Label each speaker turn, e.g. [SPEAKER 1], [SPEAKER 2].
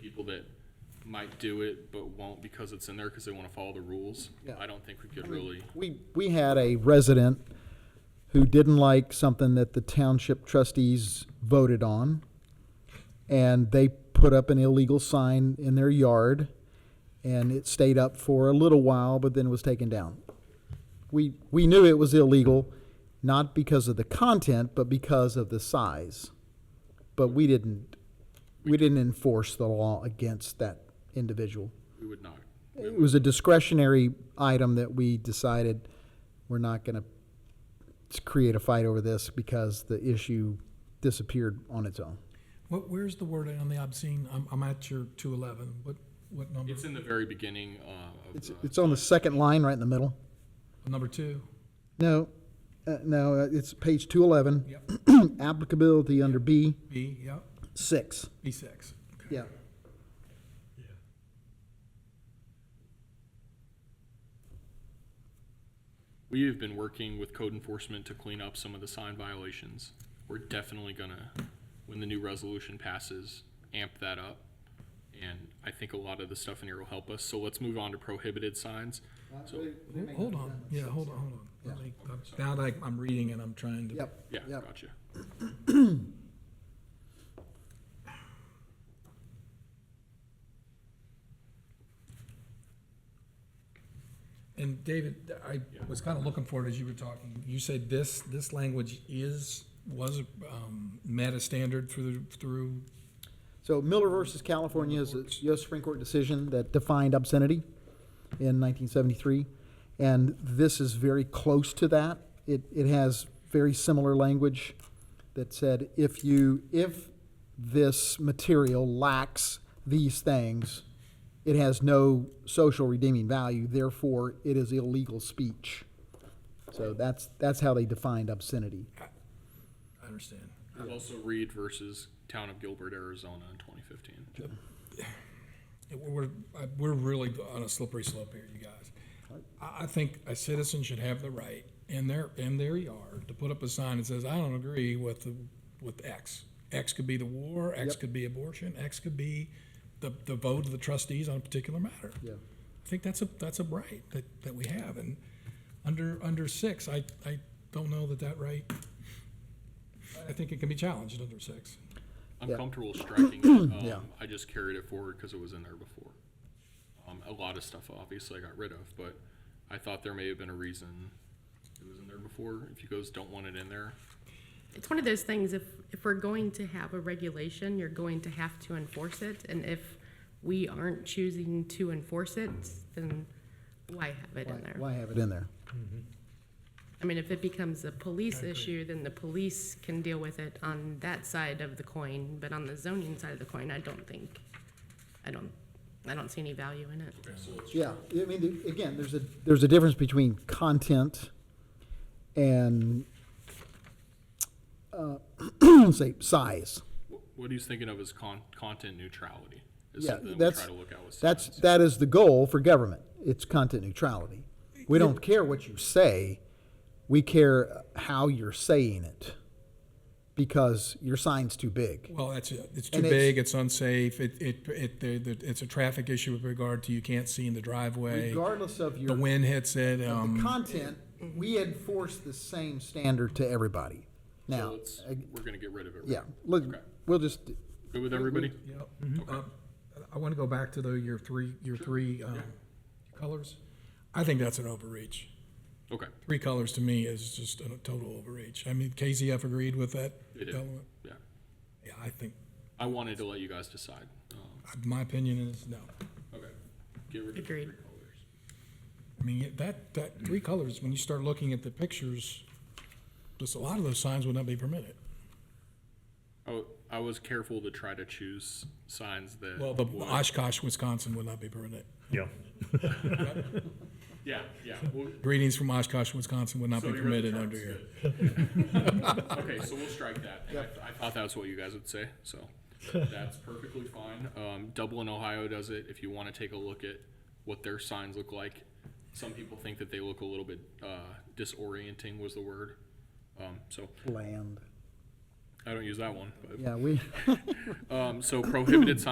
[SPEAKER 1] people that might do it but won't because it's in there because they want to follow the rules. I don't think we could really,
[SPEAKER 2] We, we had a resident who didn't like something that the township trustees voted on. And they put up an illegal sign in their yard and it stayed up for a little while, but then was taken down. We, we knew it was illegal, not because of the content, but because of the size. But we didn't, we didn't enforce the law against that individual
[SPEAKER 1] we would not.
[SPEAKER 2] it was a discretionary item that we decided we're not gonna s- create a fight over this because the issue disappeared on its own.
[SPEAKER 3] What, where's the word on the obscene? I'm, I'm at your two eleven. What, what number?
[SPEAKER 1] It's in the very beginning uh, of
[SPEAKER 2] It's,
[SPEAKER 1] the,
[SPEAKER 2] it's on the second line, right in the middle.
[SPEAKER 3] Number two?
[SPEAKER 2] No, uh, no, uh, it's page two eleven,
[SPEAKER 3] Yep.
[SPEAKER 2] applicability under B
[SPEAKER 3] B, yep,
[SPEAKER 2] six,
[SPEAKER 3] B six. Okay.
[SPEAKER 2] yeah.
[SPEAKER 1] we have been working with code enforcement to clean up some of the sign violations. We're definitely gonna, when the new resolution passes, amp that up. And I think a lot of the stuff in here will help us. So let's move on to prohibited signs. So,
[SPEAKER 3] Ho- Hold on, yeah, hold on, hold on. Let me- I'm- Now that I- I'm reading and I'm trying to.
[SPEAKER 2] Yep,
[SPEAKER 1] yeah,
[SPEAKER 2] yep.
[SPEAKER 1] gotcha.
[SPEAKER 3] And David, I was kind of looking for it as you were talking. You said this, this language is, was, um, met a standard through, through,
[SPEAKER 2] So Miller versus California is a U.S. Supreme Court decision that defined obscenity in 1973, and this is very close to that. It, it has very similar language that said if you if this material lacks these things, it has no social redeeming value. Therefore, it is illegal speech. So that's that's how they defined obscenity.
[SPEAKER 3] I understand.
[SPEAKER 1] There's also Reed versus Town of Gilbert, Arizona in twenty fifteen.
[SPEAKER 3] Yeah, We're, we're- I- we're really on a slippery slope here, you guys. I, I think a citizen should have the right in their, in their yard to put up a sign that says, I don't agree with, the with X. X could be the war, X could be abortion, X could be the, the vote of the trustees on a particular matter.
[SPEAKER 2] Yeah.
[SPEAKER 3] I think that's a, that's a right that, that we have, and under, under six, I, I don't know that that right, I think it can be challenged under six.
[SPEAKER 1] I'm
[SPEAKER 2] Yeah.
[SPEAKER 1] comfortable striking it. Um,
[SPEAKER 2] Yeah.
[SPEAKER 1] I just carried it forward because it was in there before. Um, a lot of stuff obviously I got rid of, but I thought there may have been a reason it was in there before. If you guys don't want it in there,
[SPEAKER 4] It's one of those things, if, if we're going to have a regulation, you're going to have to enforce it, and if we aren't choosing to enforce it, then why have it in
[SPEAKER 2] Why,
[SPEAKER 4] there?
[SPEAKER 2] why have it in there?
[SPEAKER 4] I mean, if it becomes a police issue, then the police can deal with it on that side of the coin, but on the zoning side of the coin, I don't think, I don't, I don't see any value in it.
[SPEAKER 2] Yeah, I mean, the- again, there's a, there's a difference between content and, uh, say, size.
[SPEAKER 1] wh- what he's thinking of is con- content neutrality. Is
[SPEAKER 2] Yeah,
[SPEAKER 1] something that we
[SPEAKER 2] that's,
[SPEAKER 1] try to look at with
[SPEAKER 2] that's,
[SPEAKER 1] signs.
[SPEAKER 2] that is the goal for government. It's content neutrality. We don't care what you say, we care how you're saying it, because your sign's too big.
[SPEAKER 3] Well, that's, it. it's too
[SPEAKER 2] And it's-
[SPEAKER 3] big, it's unsafe, it, it, it, the- the- it's a traffic issue with regard to you can't see in the driveway.
[SPEAKER 2] Regardless of
[SPEAKER 3] The
[SPEAKER 2] your
[SPEAKER 3] wind hits it, um,
[SPEAKER 2] content, we enforce the same standard to everybody.
[SPEAKER 1] So
[SPEAKER 2] Now,
[SPEAKER 1] it's-
[SPEAKER 2] uh,
[SPEAKER 1] we're gonna get rid of it. right?
[SPEAKER 2] yeah, Mm-hmm. look,
[SPEAKER 1] Okay.
[SPEAKER 2] we'll just,
[SPEAKER 1] Good with everybody?
[SPEAKER 3] Yep. Uh, I want to go back to the, your three, your three, um, colors. I think that's an overreach.
[SPEAKER 1] Okay,
[SPEAKER 3] Three colors to me is just a total overreach. I mean, KZF agreed with that
[SPEAKER 1] They did.
[SPEAKER 3] element.
[SPEAKER 1] yeah.
[SPEAKER 3] Yeah, I think, uh,
[SPEAKER 1] I wanted to let you guys decide. Um,
[SPEAKER 3] my opinion is no.
[SPEAKER 1] okay. Get rid of the three
[SPEAKER 4] Agreed.
[SPEAKER 1] colors.
[SPEAKER 3] I mean, yeah, that, that, three colors, when you start looking at the pictures, just a lot of those signs would not be permitted.
[SPEAKER 1] I, w- Oh, I was careful to try to choose signs that.
[SPEAKER 3] Well, the
[SPEAKER 1] would-
[SPEAKER 3] Oshkosh, Wisconsin would not be permitted.
[SPEAKER 5] Yeah.
[SPEAKER 1] Yeah, yeah. Well,
[SPEAKER 3] Greetings from Oshkosh, Wisconsin would not
[SPEAKER 1] So
[SPEAKER 3] be
[SPEAKER 1] you read the
[SPEAKER 3] permitted under here.
[SPEAKER 1] charts, good. Okay, so we'll strike that. And I th- I thought that's what you guys would say, so that's perfectly fine. Um, Dublin, Ohio does it. If you want to take a look at what their signs look like. Some people think that they look a little bit, uh, disorienting was the word. Um, so
[SPEAKER 2] land.
[SPEAKER 1] I don't use that one, but,
[SPEAKER 2] Yeah, we.
[SPEAKER 1] um, so prohibited signs